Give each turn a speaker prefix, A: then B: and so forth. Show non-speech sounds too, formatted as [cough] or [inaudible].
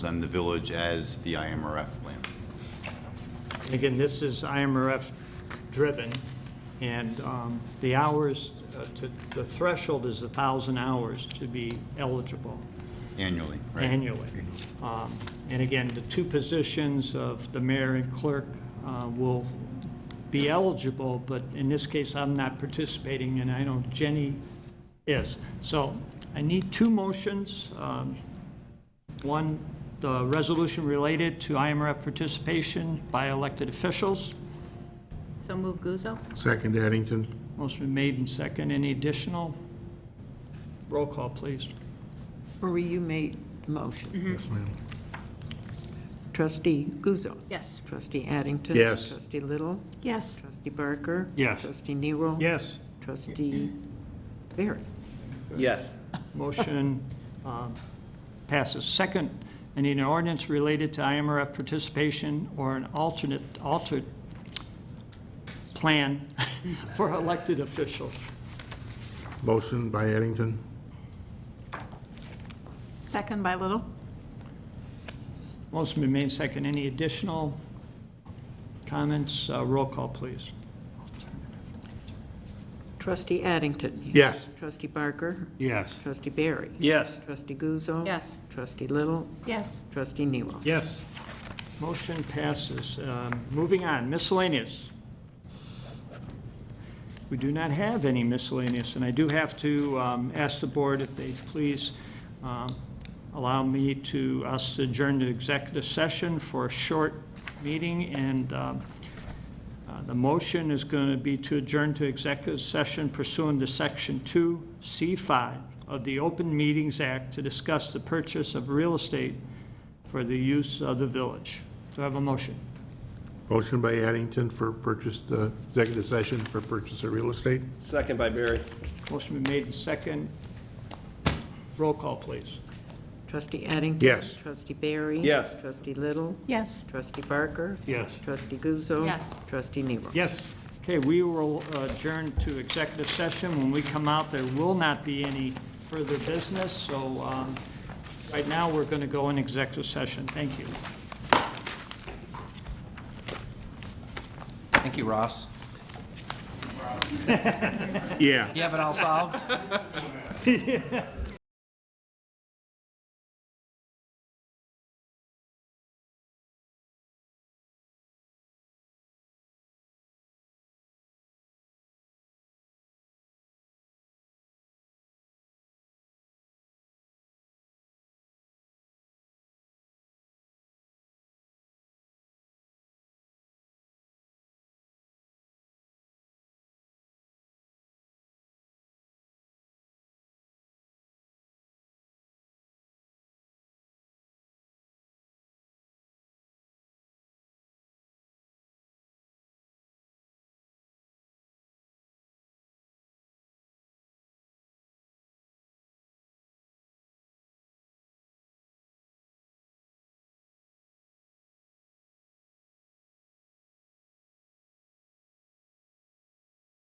A: and the village as the IMRF plan.
B: Again, this is IMRF-driven, and um, the hours, uh, to- the threshold is 1,000 hours to be eligible
A: Annually, right?
B: annually. Um, And again, the two positions of the mayor and clerk uh, will be eligible, but in this case, I'm not participating, and I know Jenny is. So I need two motions. um, One, the resolution related to IMRF participation by elected officials.
C: So move Guzzo?
D: Second, Addington.
B: Motion been made and second. Any additional? Roll call, please.
E: Marie, you made the motion.
D: Yes, ma'am.
E: Trustee Guzzo.
C: Yes.
E: Trustee Addington.
D: Yes.
E: Trustee Little.
C: Yes.
E: Trustee Barker.
B: Yes.
E: Trustee Nero.
B: Yes.
E: Trustee Barry.
F: Yes.
B: Motion um, passes. Second, I need an ordinance related to IMRF participation or an alternate, altered plan [laughs] for elected officials.
D: Motion by Addington.
C: Second by Little?
B: Motion been made second. Any additional comments? Uh, Roll call, please.
E: Trustee Addington.
D: Yes.
E: Trustee Barker.
B: Yes.
E: Trustee Barry.
F: Yes.
E: Trustee Guzzo.
C: Yes.
E: Trustee Little.
C: Yes.
E: Trustee Nero.
B: Yes. Motion passes. Um, Moving on, miscellaneous. We do not have any miscellaneous, and I do have to um, ask the board if they please um, allow me to, us to adjourn to executive session for a short meeting, and um, uh, the motion is going to be to adjourn to executive session pursuant to Section 2C5 of the Open Meetings Act to discuss the purchase of real estate for the use of the village. Do I have a motion?
D: Motion by Addington for purchase, uh, executive session for purchase of real estate.
F: Second by Barry.
B: Motion been made in second. Roll call, please.
E: Trustee Addington.
D: Yes.
E: Trustee Barry.
F: Yes.
E: Trustee Little.
C: Yes.
E: Trustee Barker.
B: Yes.
E: Trustee Guzzo.
C: Yes.
E: Trustee Nero.
B: Yes. Okay, we will adjourn to executive session. When we come out, there will not be any further business, so um, right now, we're going to go in executive session. Thank you.
G: Thank you, Ross.
D: Yeah.
G: You have it all solved?